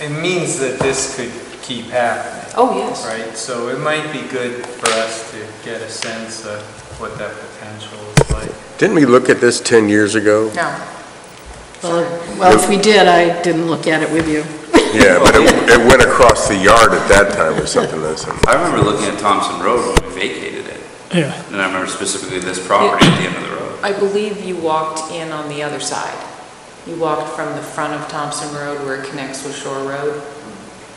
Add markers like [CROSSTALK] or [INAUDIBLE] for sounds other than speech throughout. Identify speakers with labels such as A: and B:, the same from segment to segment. A: it means that this could keep happening,
B: Oh, yes.
A: right? So it might be good for us to get a sense of what that potential is like.
C: Didn't we look at this 10 years ago?
B: No. Well, well, if we did, I didn't look at it with you.
C: Yeah, [LAUGHS] but it it went across the yard at that time or something, that's
D: I remember looking at Thompson Road when we vacated it,
E: Yeah,
D: and I remember specifically this property at the end of the road.
F: I believe you walked in on the other side. You walked from the front of Thompson Road where it connects with Shore Road.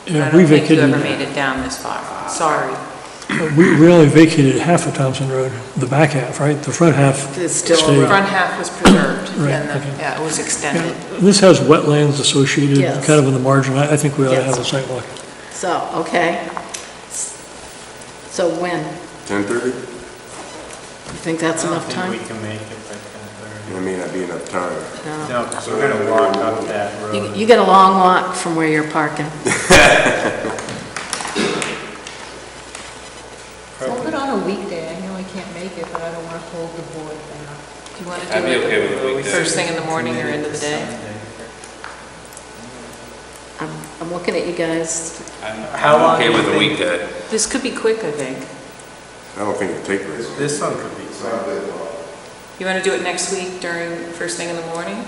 E: yeah, we
F: I don't
E: vacated,
F: think you ever made it down this far. Sorry.
E: [LAUGHS] we we only vacated half of Thompson Road, the back half, right? The front half.
B: It's still
E: stayed.
F: The front half was preserved,
E: Right,
F: and the,
E: okay.
F: yeah, it was extended.
E: Yeah, This has wetlands associated,
B: Yes.
E: kind of in the margin. I I think we ought to have a
B: Yes.
E: sidewalk.
B: So, okay. So when?
C: 10:30?
B: You think that's enough
A: I
B: time?
A: think we can make it by ten
C: It may not be enough time.
B: No.
A: thirty. No, because we're gonna walk up that
B: You-
A: road.
B: You get a long walk from where you're parking.
G: Hold it on a weekday, I know I can't make it, but I don't want to hold the board down.
F: Do you want to do
D: I'd be
F: it?
D: okay with a weekday.
F: First thing in the morning or end of the day?
B: I'm, I'm looking at you guys.
D: I'm-
A: How long
D: I'm okay
A: do you
D: with a
A: think-
D: weekday.
F: This could be quick, I think.
C: I don't think it'd take very long.
A: This one could be, quick.
F: You want to do it next week during, first thing in the morning?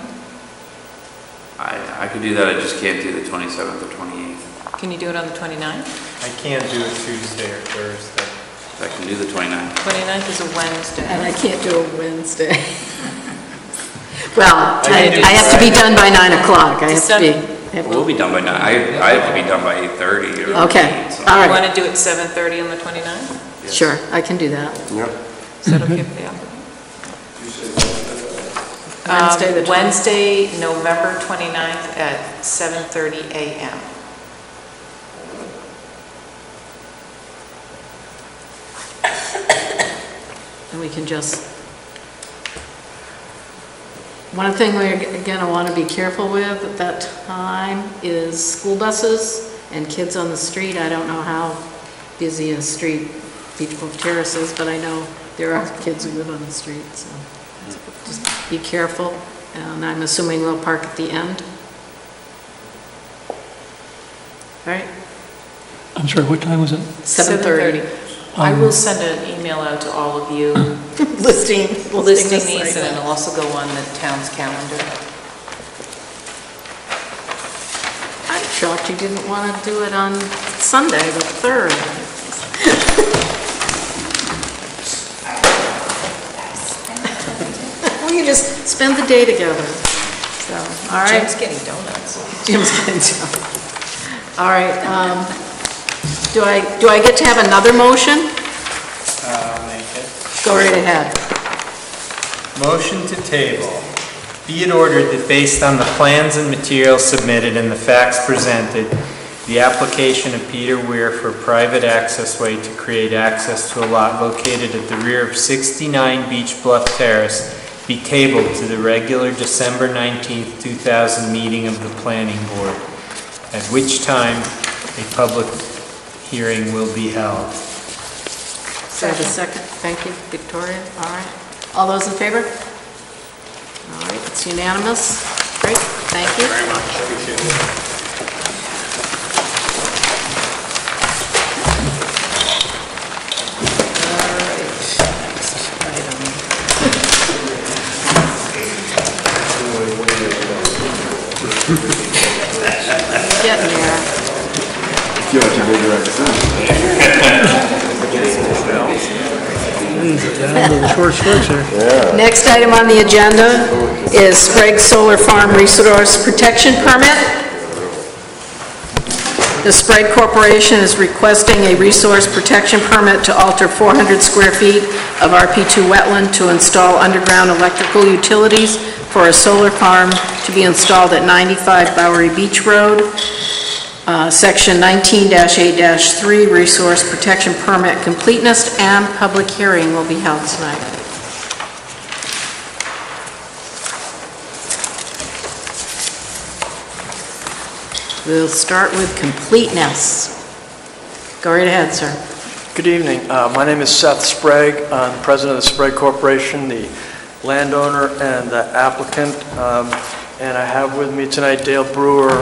D: I, I could do that, I just can't do the 27th or 28th.
F: Can you do it on the 29th?
A: I can't do it Tuesday or Thursday.
D: I can do the 29th.
F: 29th is a Wednesday.
B: And I can't do a Wednesday. [LAUGHS]
A: I
B: Well,
A: can
B: I
A: do
B: I have to be done by 9 o'clock. I have to be. I have to-
D: We'll be done by nine, I, I have to be done by 8:30 or...
B: Okay,
D: 8, so-
B: all
F: You
B: right,
F: want to do it 7:30 on the 29th?
B: sure, I can do that.
C: Yep,
F: Is that okay for the applicant?
B: [LAUGHS] Wednesday, the
F: Um,
B: 20th.
F: Wednesday, November 29th at 7:30 a.m.
B: And we can just, one thing we're gonna wanna be careful with at that time is school buses and kids on the street. I don't know how busy a street Beech Grove Terrace is, but I know there are kids who live on the street, so just be careful. And I'm assuming they'll park at the end. All right,
E: I'm sorry, what time was it?
B: 7:30.
F: 7:30.
B: Um,
F: I will send an email out to all of you
B: [LAUGHS] listing,
F: listing these, and it'll also go on the town's calendar.
B: I'm shocked you didn't want to do it on Sunday, the [LAUGHS] 3rd. Well, you just spend the day together, so, all right.
F: Jim's getting donuts.
B: Jim's getting down. All right, um, do I, do I get to have another motion?
A: Uh, I'll make it.
B: Go right ahead.
A: Motion to table. Be it ordered that based on the plans and materials submitted and the facts presented, the application of Peter Weir for a private accessway to create access to a lot located at the rear of 69 Beach Bluff Terrace be tabled to the regular December 19th, 2000 meeting of the planning board, at which time a public hearing will be held.
B: Do I have a second? Thank you, Victoria. All right. All those in favor? All right, it's unanimous. Great, thank you. Very much, appreciate [LAUGHS] it. Getting there.
C: you have to go direct to
H: Mm.
E: Down to the short strokes there.
B: Next item on the agenda is Sprague Solar Farm Resource Protection Permit. The Sprague Corporation is requesting a resource protection permit to alter 400 square feet of RP2 wetland to install underground electrical utilities for a solar farm to be installed at 95 Bowery Beach Road. Uh, Section 19-8-3, Resource Protection Permit Completeness, and public hearing will be held tonight. We'll start with completeness. Go right ahead, sir.
H: Good evening. Uh, My name is Seth Sprague. I'm president of the Sprague Corporation, the landowner and the applicant. Um, And I have with me tonight Dale Brewer,